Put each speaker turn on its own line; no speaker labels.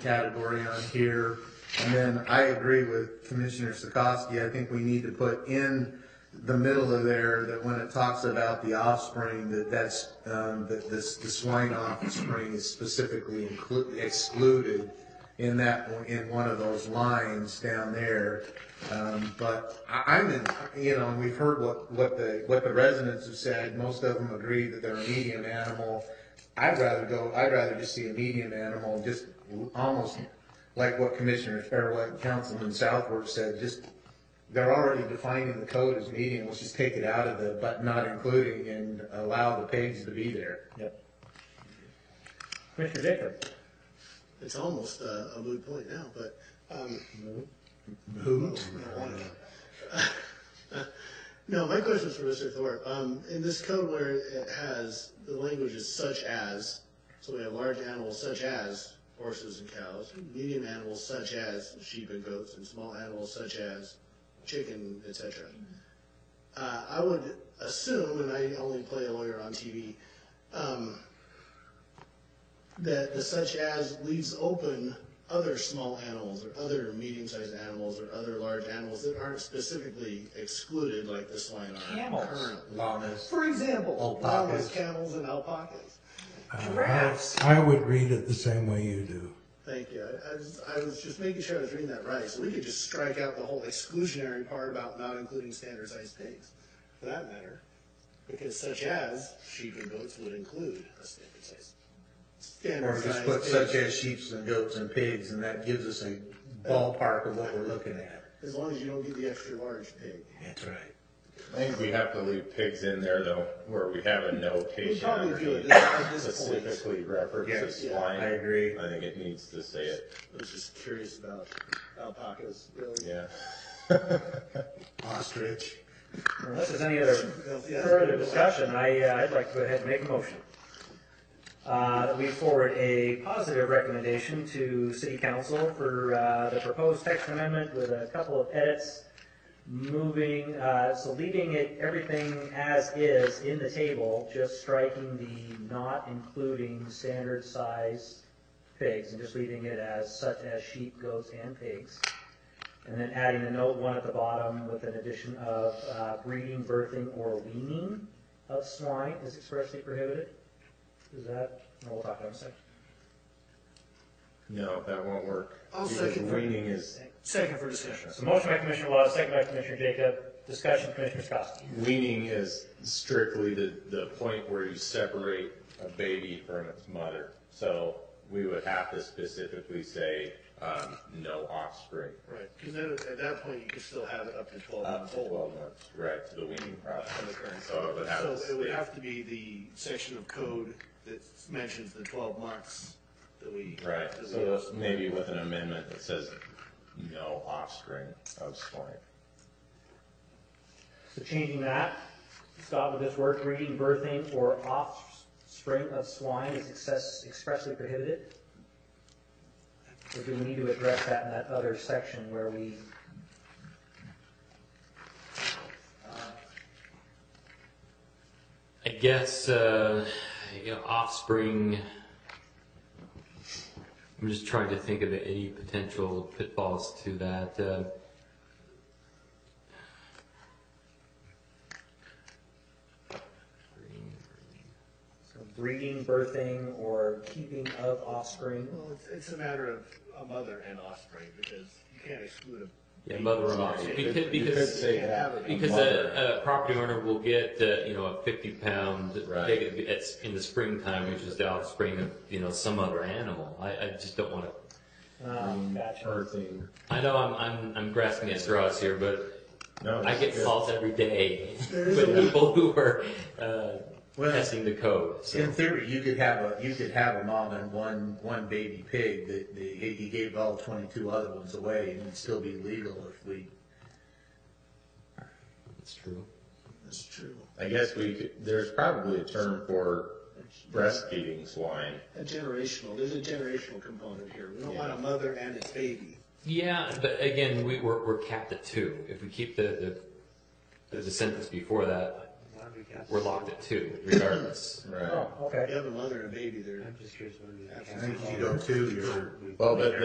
category on here. And then I agree with Commissioner Sikorsky, I think we need to put in the middle of there that when it talks about the offspring, that that's, um, that this, the swine offspring is specifically inclu- excluded in that, in one of those lines down there. Um, but I, I'm in, you know, and we've heard what, what the, what the residents have said, most of them agree that they're a medium animal. I'd rather go, I'd rather just see a medium animal, just almost like what Commissioner, or what Councilman Southworth said, just, they're already defining the code as medium, let's just take it out of the, but not including, and allow the pigs to be there.
Yep. Commissioner Jacob?
It's almost uh, a moot point now, but um,
Who?
no, my question is for Mr. Thorpe. Um, in this code where it has the language is such as, so we have large animals such as horses and cows, medium animals such as sheep and goats, and small animals such as chicken, etc. Uh, I would assume, and I only play a lawyer on TV, um, that the such as leaves open other small animals or other medium-sized animals or other large animals that aren't specifically excluded like the swine are
Camels.
currently.
Llamas.
For example,
Alpacas.
llamas, camels, and alpacas.
Giraffes.
Uh, I would read it the same way you do.
Thank you. I, I, was, I was just making sure I was reading that right. So we could just strike out the whole exclusionary part about not including standardized pigs, for that matter, because such as sheep and goats would include a standardized.
Or
Standardized
just put
pig.
such as sheeps and goats and pigs, and that gives us a ballpark of what we're looking at.
As long as you don't get the extra large pig.
That's right.
I think we have to leave pigs in there though, where we have a
We
notation
probably do it
underneath.
at this point. I
Specifically references
Yes,
swine.
I agree.
I think it needs to say it,
was just curious about alpacas, really.
yeah.
Ostrich.
Unless there's any other
Yeah.
further discussion, I, uh, I'd like to go ahead and make a motion. Uh, that we forward a positive recommendation to city council for, uh, the proposed text amendment with a couple of edits. Moving, uh, so leaving it, everything as is in the table, just striking the not including standard size pigs and just leaving it as such as sheep, goats, and pigs. And then adding the note one at the bottom with an addition of uh, breeding, birthing, or weaning of swine is expressly prohibited. Is that, no, we'll talk about it in a second.
No, that won't work.
I'll
Because
second that.
weaning is,
Second for discussion.
So motion by Commissioner Wallace, second by Commissioner Jacob, discussion, Commissioner Skoski.
weaning is strictly the, the point where you separate a baby from its mother. So we would have to specifically say, um, no offspring.
Right, because then at that point, you could still have it up to twelve
Up
months
to
old.
twelve months, right, to the weaning
on the current
process. So it would have to
So it would
stay-
have to be the section of code that mentions the twelve months that we.
Right,
that we-
so maybe with an amendment that says no offspring of swine.
So changing that, Scott, with this word, breeding, birthing, or offspring of swine is excess- expressly prohibited? Or do we need to address that in that other section where we
I guess uh, you know, offspring. I'm just trying to think of any potential pitfalls to that. Uh,
So breeding, birthing, or keeping of offspring.
Well, it's, it's a matter of a mother and offspring, because you can't exclude a.
yeah, mother and offspring. Because,
You could
because
say that.
because a, a property owner will get uh, you know a 50 pound
Right.
they get- it's in the springtime, which is the offspring of you know some other animal. I, I just don't want to.
Um, gotcha.
Birthing.
I know I'm, I'm I'm grasping at straws here, but
No,
I get
that's good.
calls every day
is
with
a-
people who are uh,
Well-
testing the code. So.
In theory, you could have a, you could have a mom and one, one baby pig that, the, he gave all twenty-two other ones away and it'd still be legal if we,
That's true.
That's true.
I guess we could, there's probably a term for breastfeeding swine.
A generational, there's a generational component here. We don't want a mother and its baby.
Yeah, but again, we, we're, we're capped at two. If we keep the, the, the sentence before that,
I'd be cast-
We're locked at two, regardless.
Right.
Oh, okay.
If you have a mother and a baby, they're
I'm just curious what it would be
I think if you go two, you're.
Well, but